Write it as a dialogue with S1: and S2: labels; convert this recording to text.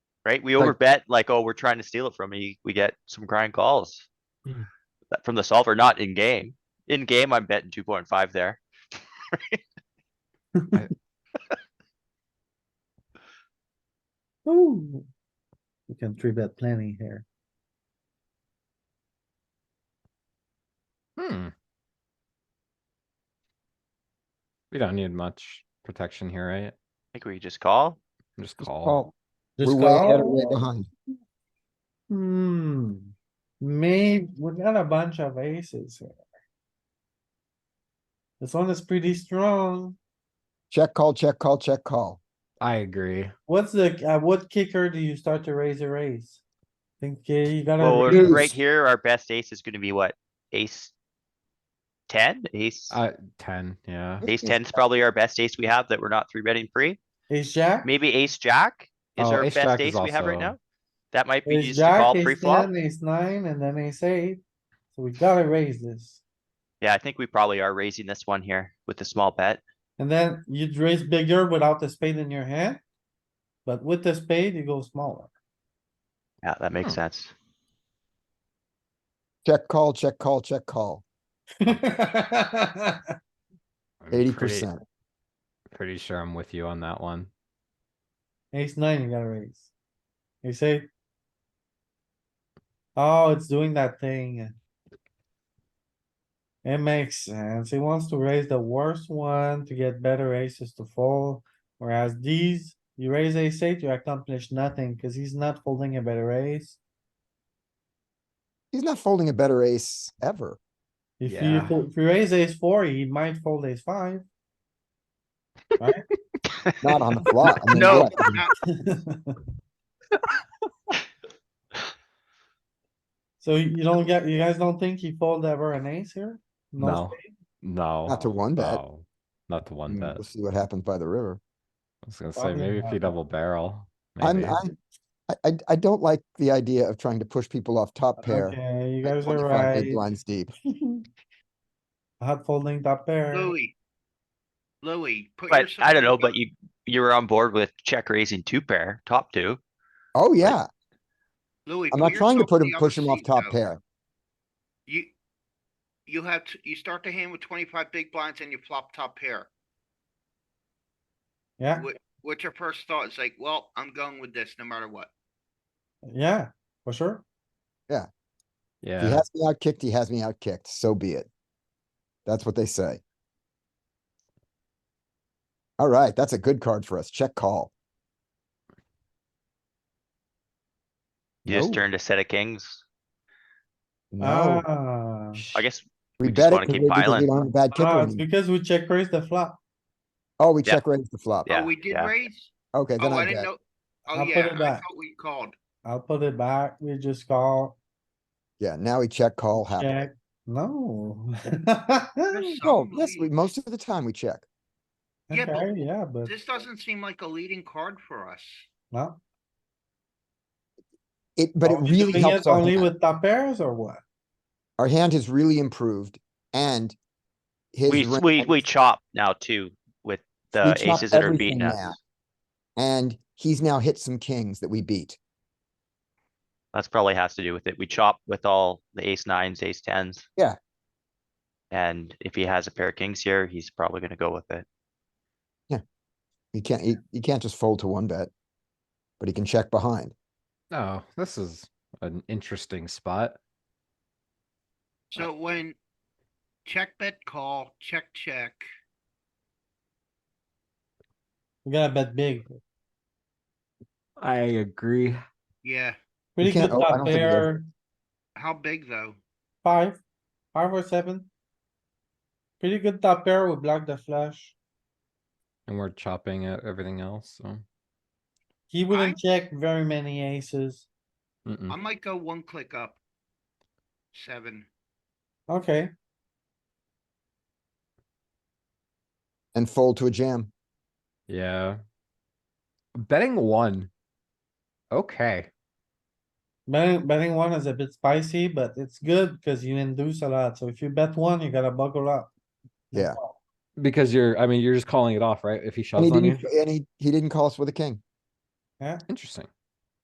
S1: right? We
S2: Like-
S1: overbet like, oh, we're trying to steal it from you. We get some grind calls.
S3: Hmm.
S1: That- From the solver, not in game. In game, I'm betting two point five there.
S2: Ooh. You can three bet plenty here.
S3: Hmm. We don't need much protection here, right?
S1: I think we just call.
S3: Just
S4: Just
S3: call.
S4: call.
S2: Just
S4: We're way out or way
S2: call.
S4: behind.
S2: Hmm, may, we got a bunch of aces here. This one is pretty strong.
S4: Check, call, check, call, check, call.
S3: I agree.
S2: What's the, uh, what kicker do you start to raise a raise? Think uh, you
S1: Well,
S2: gotta,
S1: we're-
S4: reduce.
S1: right here, our best ace is gonna be what? Ace? Ten? Ace?
S3: Uh, ten, yeah.
S1: Ace ten is probably our best ace we have that we're not three betting free.
S2: ace jack?
S1: Maybe ace jack is
S3: Oh,
S1: our
S3: ace
S1: best
S3: jack is
S1: ace we have right
S3: also-
S1: now. That might be
S2: Ace
S1: just to
S2: jack,
S1: call pre
S2: ace
S1: flop.
S2: ten, ace nine, and then ace eight. So we gotta raise this.
S1: Yeah, I think we probably are raising this one here with the small bet.
S2: And then you'd raise bigger without the spade in your hand. But with the spade, you go smaller.
S1: Yeah, that
S3: Hmm.
S1: makes sense.
S4: Check, call, check, call, check, call.
S3: I'm pretty-
S4: Eighty percent.
S3: Pretty sure I'm with you on that one.
S2: Ace nine, you gotta raise. You say. Oh, it's doing that thing. It makes sense. He wants to raise the worst one to get better aces to fold, whereas these, you raise ace eight, you accomplish nothing, cause he's not folding a better ace.
S4: He's not folding a better ace ever.
S2: If you,
S3: Yeah.
S2: fo- if you raise ace four, he might fold ace five.
S4: Not on the flop. I mean,
S1: No.
S4: what?
S2: So you don't get, you guys don't think he fold ever an ace here?
S3: No, no.
S4: Not to one bet. Mm,
S3: no, Not to
S4: I
S3: one
S4: mean,
S3: bet.
S4: We'll see what happens by the river.
S3: I was gonna say,
S2: Probably
S3: maybe if
S2: not.
S3: you double barrel.
S4: I'm,
S3: maybe.
S4: I'm, I, I, I don't like the idea of trying to push people off top pair.
S2: Okay, you
S4: at
S2: guys are
S4: 25 big
S2: right.
S4: Blinds deep.
S2: Hot folding top pair.
S5: Louis. Louis, put
S1: But
S5: yourself.
S1: I don't know, but you, you were on board with check raising two pair, top two.
S4: Oh, yeah.
S5: Louis.
S4: I'm
S5: put
S4: not trying to
S5: yourself
S4: put
S5: in
S4: him,
S5: the
S4: push
S5: other
S4: him off
S5: seat,
S4: top
S5: though.
S4: pair.
S5: You, you have, t- you start the hand with twenty-five big blinds and you flop top pair.
S2: Yeah,
S5: What, what's your first thought? It's like, well, I'm going with this no matter what.
S2: yeah, for sure.
S4: If he
S3: Yeah,
S4: has me out kicked, he has me out kicked. So be it. That's what they say. Alright, that's a good card for us. Check call.
S1: You just
S4: No,
S1: turned a set of kings.
S4: Oh, No,
S2: Ah,
S1: I guess
S4: we
S1: just
S4: bet
S1: wanna
S4: it 'cause
S1: keep
S4: we- because
S1: piling.
S4: we don't have a bad kicker.
S2: ah, it's
S4: anymore.
S2: because we check raise the flop.
S4: Oh, we
S1: Yeah.
S4: check raise the flop.
S1: Yeah,
S5: Oh, we did
S1: yeah.
S5: raise?
S4: Okay, then
S5: Oh,
S4: I
S5: I didn't
S4: bet.
S5: know. Oh,
S2: I'll put
S5: yeah,
S2: it
S5: I
S2: back.
S5: thought we called.
S2: I'll put it back. We just call,
S4: Yeah, now we check call happily.
S2: check. No.
S5: There's
S4: Oh,
S5: some
S4: yes, we,
S5: lead.
S4: most of the time we check.
S5: Yeah, but
S2: Okay, yeah, but
S5: This doesn't seem like a leading card for us.
S2: no.
S4: It, but it
S2: Are we
S4: really
S2: doing it
S4: helps our
S2: Only
S4: hand.
S2: with top pairs or what?
S4: Our hand has really improved and his.
S1: we,
S4: range-
S1: we, we chop now too with the
S4: chop
S1: aces that are
S4: everything
S1: beating
S4: now.
S1: us.
S4: And he's now hit some kings that we beat.
S1: That's probably has to do with it. We chop with all the ace nines, ace tens.
S4: Yeah.
S1: And if he has a pair of kings here, he's probably gonna go with it.
S4: You can't, you, you can't just fold to one bet. But he can check behind.
S3: no, this is an interesting spot.
S5: So when check bet call, check, check,
S2: We gotta bet big.
S3: I agree.
S5: yeah,
S2: Pretty good
S4: can't- oh, I
S2: top
S4: don't think it is.
S2: pair,
S5: how big though?
S2: five, five or seven. Pretty good top pair, we block the flush.
S3: And we're chopping at everything else, so.
S2: He wouldn't check very many aces.
S3: mm-mm.
S5: I might go one click up. Seven.
S2: Okay,
S4: And fold to a jam.
S3: Yeah. Betting one. Okay,
S2: betting, betting one is a bit spicy, but it's good because you induce a lot. So if you bet one, you gotta buckle up.
S4: Yeah.
S3: because you're, I mean, you're just calling it off, right? If he
S4: And he
S3: shoves on you.
S4: didn't, and he, he didn't call us with a king.
S3: Interesting.